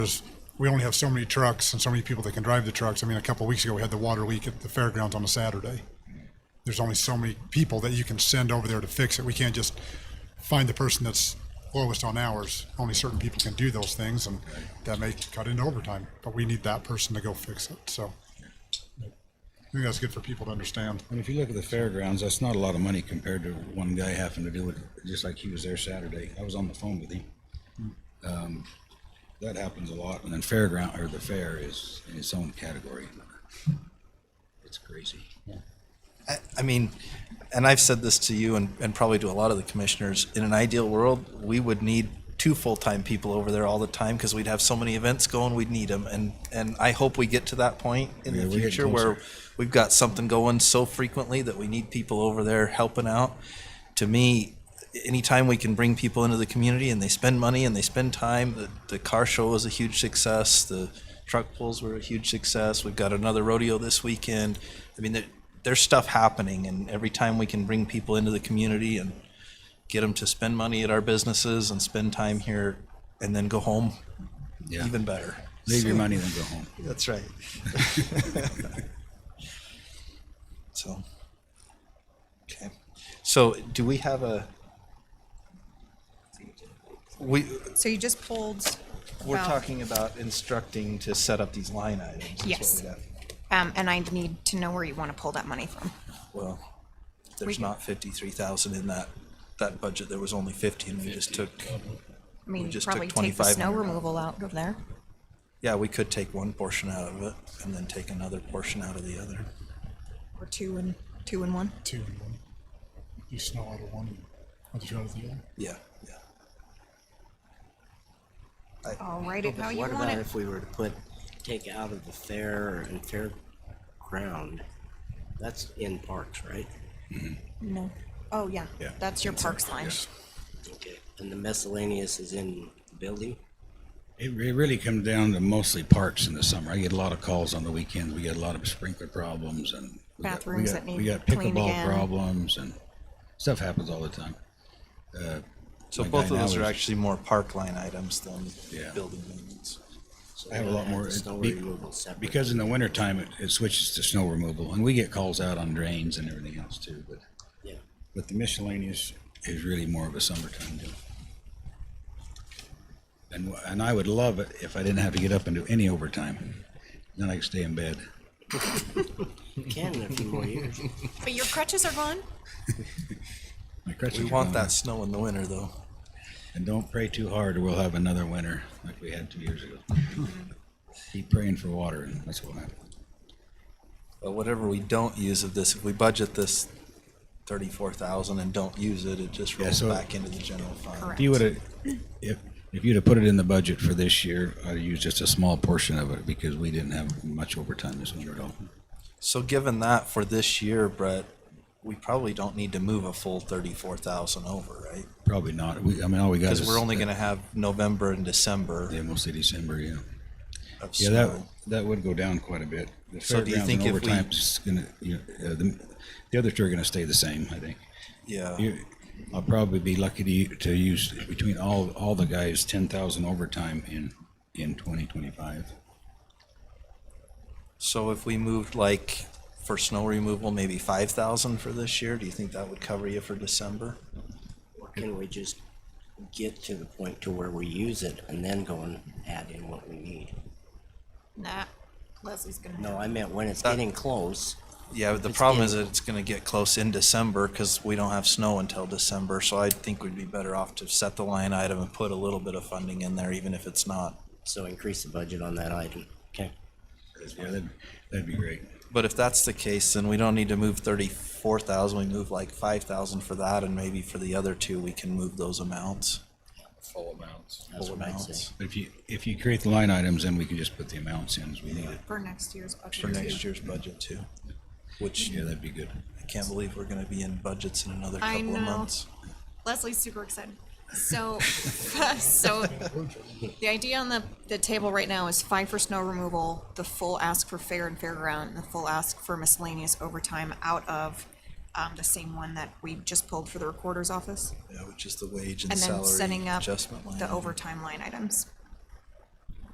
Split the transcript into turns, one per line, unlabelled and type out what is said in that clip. There's, we only have so many trucks and so many people that can drive the trucks. I mean, a couple of weeks ago, we had the water leak at the fairgrounds on a Saturday. There's only so many people that you can send over there to fix it. We can't just find the person that's lowest on hours. Only certain people can do those things, and that may cut into overtime. But we need that person to go fix it. So I think that's good for people to understand.
And if you look at the fairgrounds, that's not a lot of money compared to one guy having to do it, just like he was there Saturday. I was on the phone with him. Um, that happens a lot, and then fairground, or the fair is in its own category. It's crazy.
I, I mean, and I've said this to you and, and probably to a lot of the commissioners, in an ideal world, we would need two full-time people over there all the time because we'd have so many events going, we'd need them. And, and I hope we get to that point in
Yeah,
the
we're getting
future where
closer.
we've got something going so frequently that we need people over there helping out. To me, anytime we can bring people into the community and they spend money and they spend time, the, the car show was a huge success, the truck pulls were a huge success, we've got another rodeo this weekend. I mean, there, there's stuff happening and every time we can bring people into the community and get them to spend money at our businesses and spend time here and then go home,
Yeah.
even better.
Leave your money, then go home.
That's right. So, okay. So do we have a? We,
So you just pulled.
we're
about-
talking about instructing to set up these line items. is what
Yes.
we got.
Um, and I need to know where you want to pull that money from.
Well,
We
there's
can-
not fifty-three thousand in that, that budget. There was only fifty and we just took,
I mean, you
just
probably
took
take the snow
$2,500
removal out of there.
yeah, we could take one portion out of it and then take another portion out of the other.
Or two and, two and one.
Two and one. You snow out of one, and others go out of the other.
Yeah, yeah.
I'll write it how you
What
want
about
it.
if we were to put, take out of the fair and fairground? That's in parks, right?
No. Oh, yeah.
Yeah.
That's your parks line.
Okay. And the miscellaneous is in the building?
It, it really comes down to mostly parks in the summer. I get a lot of calls on the weekends. We get a lot of sprinkler problems and we got- we
Bathrooms
got-
that need
We got
cleaned again.
pickleball problems and stuff happens all the time.
So
My
both
guy
of those
now
are
is-
actually more park line items than
Yeah.
building maintenance.
I have a lot more.
Snow
be-
removal separate.
Because in the wintertime, it, it switches to snow removal, and we get calls out on drains and everything else too, but,
Yeah.
but the miscellaneous is really more of a summertime deal. And, wh- and I would love it if I didn't have to get up and do any overtime. Then I could stay in bed.
You Can in a few more years.
But your crutches are gone?
My crutches
We
are
want
gone.
that snow in the winter though.
And don't pray too hard, or we'll have another winter like we had two years ago. Keep praying for water, and that's what will happen.
But whatever we don't use of this, if we budget this thirty-four thousand and don't use it, it just rolls
so-
back into the general fund.
Correct.
If you would have, if, if you'd have put it in the budget for this year, I'd use just a small portion of it because we didn't have much overtime this winter at all.
So given that for this year, Brett, we probably don't need to move a full thirty-four thousand over, right?
Probably not. We, I mean, all we got
Because
is.
we're only gonna have November and December
Yeah, mostly December, yeah.
of
Yeah, that,
snow.
that would go down quite a bit. The
So do you
fairgrounds
think
and
if we-
overtime's just gonna, you know, uh, the, the other two are gonna stay the same, I think.
Yeah,
You, I'll probably be lucky to, u- to use between all, all the guys, ten thousand overtime in, in twenty twenty-five.
so if we moved like for snow removal, maybe five thousand for this year, do you think that would cover you for December?
Or can we just get to the point to where we use it and then go and add in what we need?
Nah. Leslie's gonna.
No, I meant when it's getting close.
Yeah, but the
It's
problem
in-
is that it's gonna get close in December, cause we don't have snow until December, so I think we'd be better off to set the line item and put a little bit of funding in there, even if it's not.
So increase the budget on that item. Okay.
Yeah, that'd, that'd be great.
But if that's the case, then we don't need to move thirty-four thousand, we move like five thousand for that, and maybe for the other two, we can move those amounts.
Full amounts.
That's
Full
what I'd
amounts.
say.
But If you, if you create the line items, then we can just put the amounts in as we need it.
For next year's budget.
for next year's budget too, which
Yeah, that'd be good.
I can't believe we're gonna be in budgets in another
I
couple of
know.
months.
Leslie's super excited. So, so the idea on the, the table right now is five for snow removal, the full ask for fair and fairground, and the full ask for miscellaneous overtime out of um, the same one that we just pulled for the recorder's office,
Yeah, which is the wage and
and then
salary
setting up
adjustment line.
the overtime line items.